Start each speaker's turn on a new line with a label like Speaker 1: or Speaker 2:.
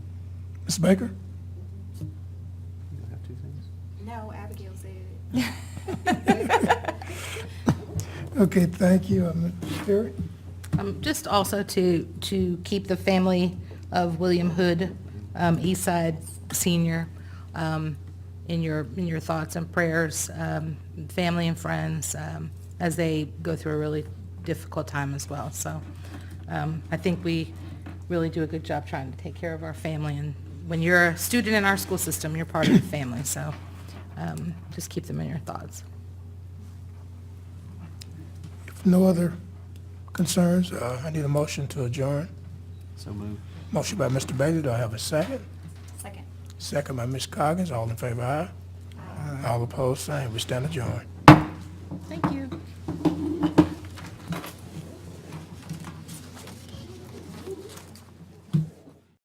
Speaker 1: Ms. Baker?
Speaker 2: You have two things?
Speaker 3: No, Abigail said it.
Speaker 1: Okay, thank you. Uh, Ms. Terry?
Speaker 4: Um, Just also to, to keep the family of William Hood, um, Eastside Senior, um, in your, in your thoughts and prayers, um, family and friends, um, as they go through a really difficult time as well. So um, I think we really do a good job trying to take care of our family. And when you're a student in our school system, you're part of the family. So um, just keep them in your thoughts.
Speaker 1: If no other concerns, uh, I need a motion to adjourn.
Speaker 2: So moved.
Speaker 1: Motion by Mr. Bailey, do I have a second?
Speaker 3: Second.
Speaker 1: Second by Ms. Coggins, all in favor, aye? All opposed, same. We stand adjourned.
Speaker 4: Thank you.